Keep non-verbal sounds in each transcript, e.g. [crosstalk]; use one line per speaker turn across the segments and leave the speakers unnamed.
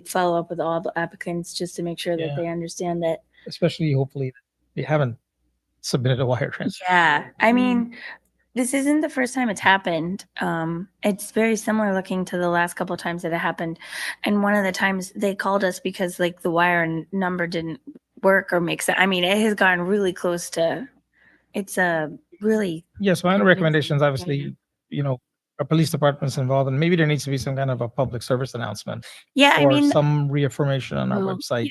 follow up with all the applicants just to make sure that
Yeah.
they understand
[laughs]
that.
especially hopefully they haven't submitted a wire transfer.
Yeah, I
Mm-hmm.
mean, this isn't the first time it's happened. Um, it's very similar looking to the last couple of times that it happened. And one of the times they called us because like the wire n- number didn't work or make sense. I mean, it has gotten really close to. It's a really
[laughs] Yeah, so my
Yeah.
recommendations, obviously, you know, our police department's involved and maybe there needs to be some kind of a public service announcement
yeah. I
or
mean,
some reaffirmation on our
Well, you
website.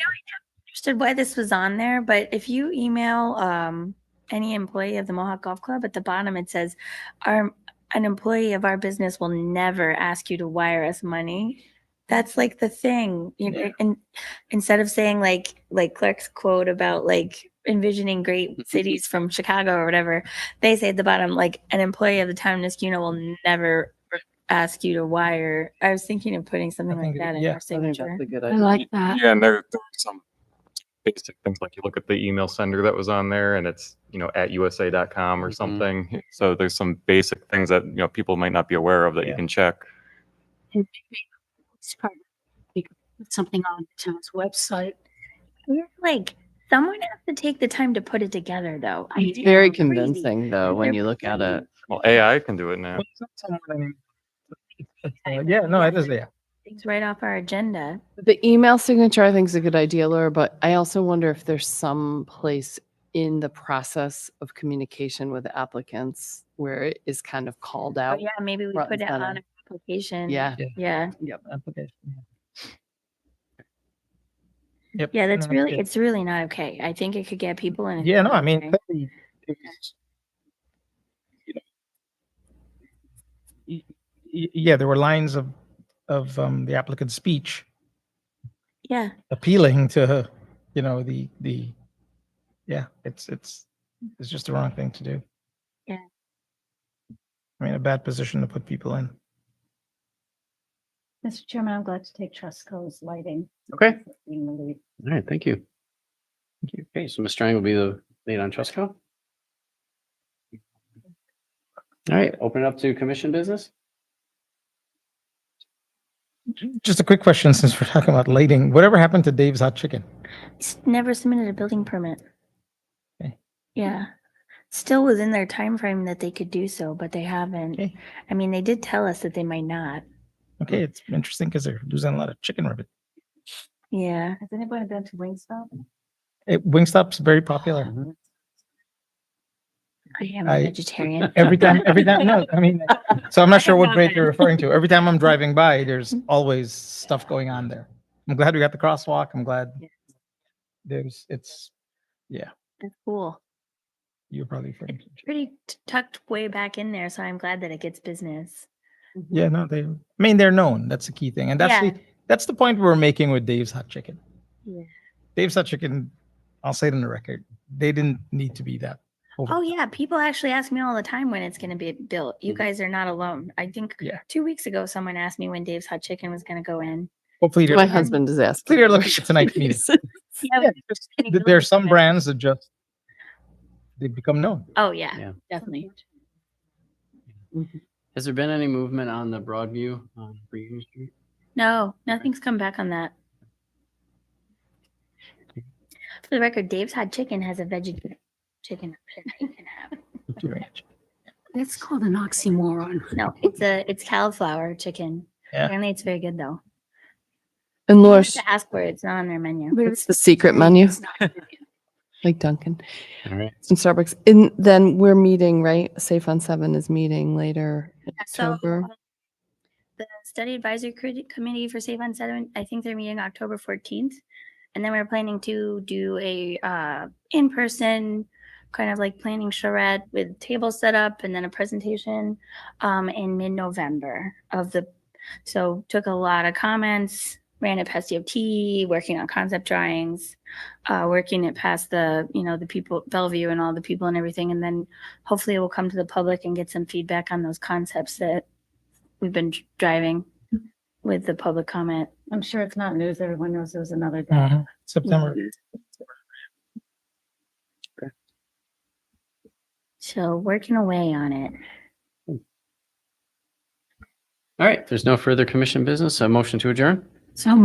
understood why this was on there, but if you email um, any employee of the Mohawk Golf Club, at the bottom it says, "Our an employee of our business will never ask you to wire us money." That's like the thing, you know.
Yeah.
And instead of saying like like Clark's quote about like envisioning
[laughs]
great cities from Chicago or whatever, they say at the bottom like an employee of the town of Niskuna will never ask you to wire. I was thinking of putting something like
think-
that in
yeah, I
our
I think
signature.
that's a good
I
idea.
like that.
Yeah, and there, there are some basic things like you look at the email sender that was on there and it's, you know, at usa.com or
Mhm.
something. So there's some basic things that, you know, people might not be aware of that
Yeah.
you can check.
And maybe it's part of- we could put Something on the town's website.
Yeah, like someone has to take the time to put it together though. I
It's
do.
Very
very
Crazy.
convincing though, when you look at it.
Well, AI can do it now.
Well, it's not something that
[laughs]
I mean, it's, uh, Yeah, no, it is, yeah.
Things right off our agenda.
The email signature, I think is a good idea, Laura, but I also wonder if there's some place in the process of communication with applicants where it is kind of called
Oh
out.
yeah, maybe we
front
put
and
it on
center.
an application.
Yeah.
Yeah.
Application. Yep.
Yeah, that's
no,
really
yeah.
it's really not okay. I think it could get people in. a-
Mm-hmm. Yeah, no, I mean,
okay.
clearly, it's- you know, y- y- yeah, there were lines of, of um, the applicant's speech
Yeah.
appealing to, you know, the, the, yeah, it's, it's, it's just the wrong thing to do.
Yeah.
I mean, a bad position to put people in.
Mr. Chairman, I'm glad to take Trusco's lighting.
Okay,
being the lead.
all right, thank you. Okay, so Ms. Strang will be the lead on Trusco. All right, open it up to commission business.
Just a quick question, since we're talking about lighting, whatever happened to Dave's Hot Chicken?
S- Never submitted a building permit.
Okay.
Yeah. Still within their time frame that they could do so, but they haven't.
Okay.
I mean, they did tell us that they might not. Mm.
Okay, it's interesting because they're losing a lot of chicken ribbon.
Yeah.
Has anybody been to Wingstop?
It, Wingstop's very popular.
I am
I-
a vegetarian.
[laughs] Every time, every
[laughs]
time, no, I mean, so I'm not sure
I
what
know
grade
that.
you're referring to. Every time I'm driving by, there's always stuff going on there. I'm glad we got the crosswalk. I'm glad
Yes.
there's, it's,
That's cool.
you're probably referring to.
Pretty t- tucked way back in there, so I'm glad that it gets
[laughs]
business.
Mm-hmm.
Yeah, no, they, I mean, they're known. That's the key thing. And that's
Yeah.
the, that's the point we're making with Dave's Hot Chicken.
Yeah.
Dave's Hot Chicken, I'll say it on the record, they didn't need to be that. over-
Oh yeah, people actually ask me all the time when it's going to be built. You
Mhm.
guys are not alone. I think
Mm-hmm. Yeah.
two weeks ago someone asked me when Dave's Hot Chicken was going to go in.
Hopefully, they're-
My husband is asking.
they're
for
looking at tonight's meeting.
reasons.
Yeah,
yeah, just-
any
there are
building
some
permit.
brands that just, they
[laughs]
become known.
Oh
[laughs]
yeah,
Yeah.
definitely.
Has there been any movement on the Broadview on Union Street?
No, nothing's come back on
[laughs]
that. For the record, Dave's Hot Chicken has a veggie chicken option that you can have.
That's called an oxymoron.
No, it's a it's cauliflower chicken.
Yeah.
Apparently, it's very good though.
[laughs] And
You
Laura,
have
sh-
to ask for it. It's not on their menu.
But
it's the secret menu,
It's not good.
like Duncan
All right,
and Starbucks. And then we're meeting, right? Safe on Seven is meeting later in
So
October.
um, the study advisory Crit- committee for Save on Sediment, I think they're meeting October fourteenth. And then we're planning to do a uh, in-person kind of like planning charrette with table setup and then a presentation um, in mid-November of the, so took a lot of comments, ran it past DOT, working on concept drawings, uh, working it past the, you know, the people, Bellevue and all the people and everything. And then hopefully we'll come to the public and get some feedback on those concepts that we've been dr- driving with the public comment.
I'm sure it's not news. Everyone knows it was another day.
Uh-huh.
Mhm. September.
So working away on it.
all right, if there's no further commission business, a motion to adjourn?
So